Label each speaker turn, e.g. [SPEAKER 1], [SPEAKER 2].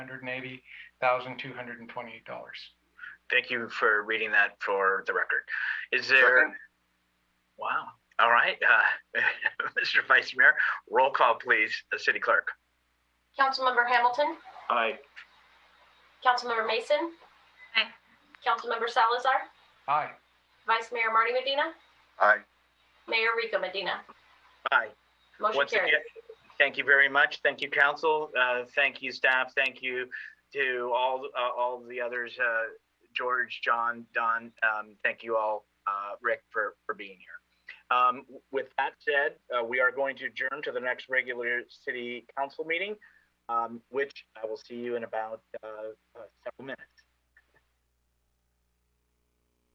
[SPEAKER 1] hundred and eighty thousand, two hundred and twenty-eight dollars.
[SPEAKER 2] Thank you for reading that for the record. Is there?
[SPEAKER 3] Second.
[SPEAKER 2] Wow. All right. Uh, Mr. Vice Mayor, roll call, please. Uh, City Clerk.
[SPEAKER 4] Councilmember Hamilton,
[SPEAKER 3] Aye.
[SPEAKER 4] Councilmember Mason.
[SPEAKER 5] Aye.
[SPEAKER 4] Councilmember Salazar,
[SPEAKER 1] Aye.
[SPEAKER 4] Vice Mayor Marty Medina,
[SPEAKER 3] Aye.
[SPEAKER 4] Mayor Rico Medina.
[SPEAKER 2] Aye.
[SPEAKER 4] Motion
[SPEAKER 2] Once
[SPEAKER 4] carries.
[SPEAKER 2] again, thank you very much. Thank you, council. Uh, thank you, staff. Thank you to all, uh, all the others, uh, George, John, Don. Um, thank you all, uh, Rick, for, for being here. Um, with that said, uh, we are going to adjourn to the next regular city council meeting, um, which I will see you in about, uh, uh, several minutes.